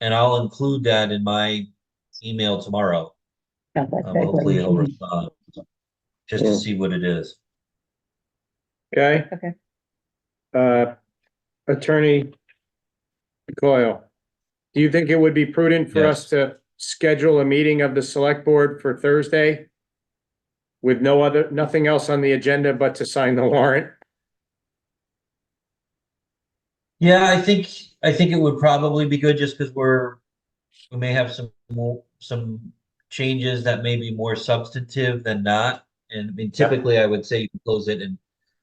and I'll include that in my email tomorrow. Yeah, Um, that- that's what hopefully we it'll should do. respond. Just to Yeah. see what it is. Okay? Okay. Uh, Attorney Coyle, do you think it would be prudent for Yes. us to schedule a meeting of the select board for Thursday? With no other, nothing else on the agenda but to sign the warrant? Yeah, I think, I think it would probably be good just because we're, we may have some more, some changes that may be more substantive than not. And I mean, typically I would say you can close it and,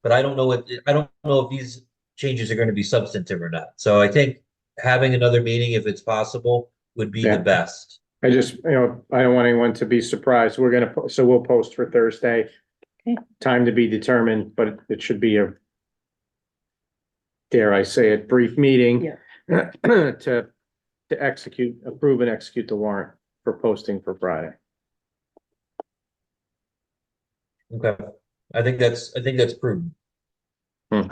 but I don't know what, I don't know if these changes are going to be substantive or not. So I think having another meeting, if it's possible, would be Yeah. the best. I just, you know, I don't want anyone to be surprised. We're gonna, po- so we'll post for Thursday. Okay. Time to be determined, but it should be a dare I say it, brief meeting to, to execute, approve and execute the warrant for posting for Friday. Okay, I think that's, I think that's prudent. You guys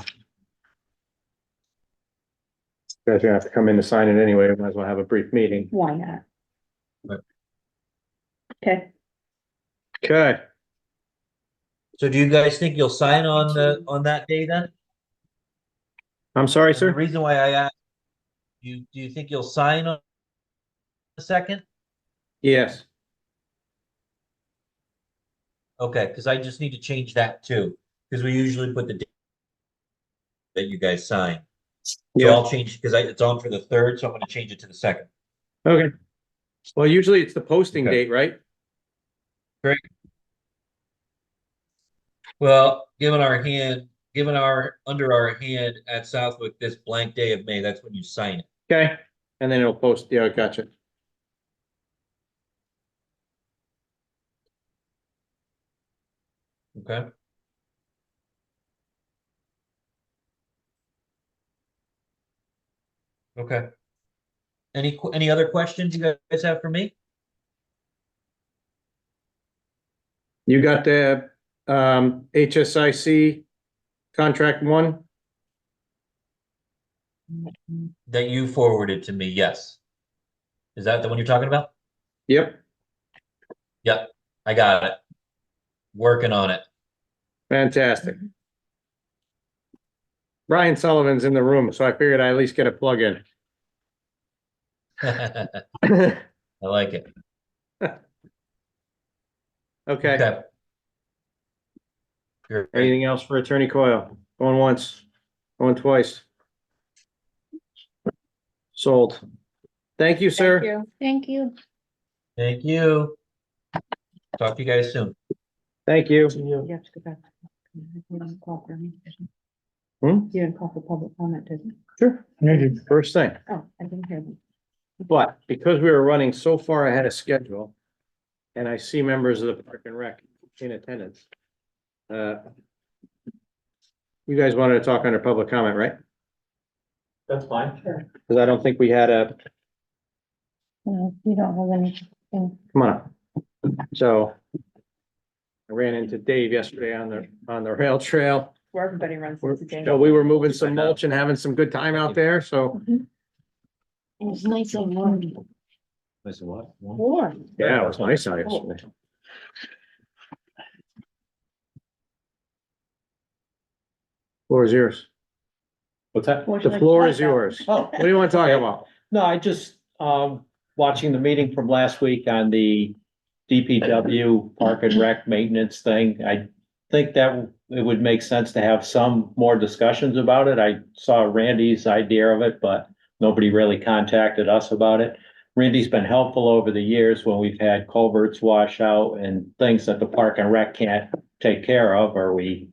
are gonna have to come in to sign it anyway. Might as well have a brief meeting. Why not? Right. Okay, Okay, So do you guys think you'll sign on the, on that day then? I'm sorry, And The sir. reason why I asked, you, do you think you'll sign on the second? Yes, Okay, because I just need to change that too, because we usually put the date that you guys sign. So yeah, I'll change, because I, it's on for the third, so I'm gonna change it to the second. okay. Well, usually it's the posting Okay. date, right? Well, given our hand, given our, under our hand at Southwick this blank day of May, that's when you sign it. Okay, and then it'll post, yeah, gotcha. Okay. Okay. Any, que- any other questions you guys have for me? You got the um HSIC contract one? That you forwarded to me, yes. Is that the one you're talking about? Yep, Yep, I got it. Working on it. fantastic. Ryan Sullivan's in the room, so I figured I at least get a plug in. I like it. Okay, Great. anything else for Attorney Coyle? Going once, going twice. Sold. Thank you, Thank sir. you. thank you. Thank you. Talk to you guys soon. Thank you. You have to go back. You didn't call for me. did you? Hmm? You didn't call for public comment, did you? Sure. First thing. Oh, I didn't hear them. But because we were running so far ahead of schedule, and I see members of the Park and Rec in attendance. uh, You guys wanted to talk under public comment, right? That's fine. Because I don't think we had a, No, you don't have anything. come on. up. So I ran into Dave yesterday on the, on the rail trail. Where everybody runs We're- into James. So we were moving some mulch and having some good time out there, so. It's nice and warm. Listen, what? Warm. Yeah, it was nice out yesterday. Floor is yours. What's that? Would you The like to floor talk is about- yours. Oh, What do you want to talk about? no, I just, um, watching the meeting from last week on the DPW Park and Rec maintenance thing. I think that it would make sense to have some more discussions about it. I saw Randy's idea of it, but nobody really contacted us about it. Randy's been helpful over the years when we've had culverts wash out and things that the Park and Rec can't take care of, or we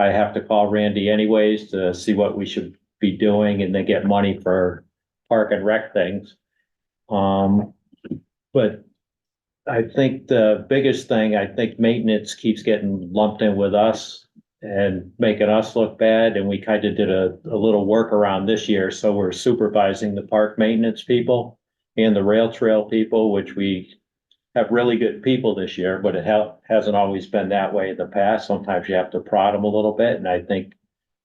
I have to call Randy anyways to see what we should be doing and they get money for park and rec things. Um, but I think the biggest thing, I think maintenance keeps getting lumped in with us and making us look bad, and we kind of did a, a little workaround this year, so we're supervising the park maintenance people and the rail trail people, which we have really good people this year, but it ha- hasn't always been that way in the past. Sometimes you have to prod them a little bit, and I think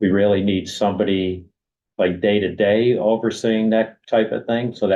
we really need somebody like day to day overseeing that type of thing, so that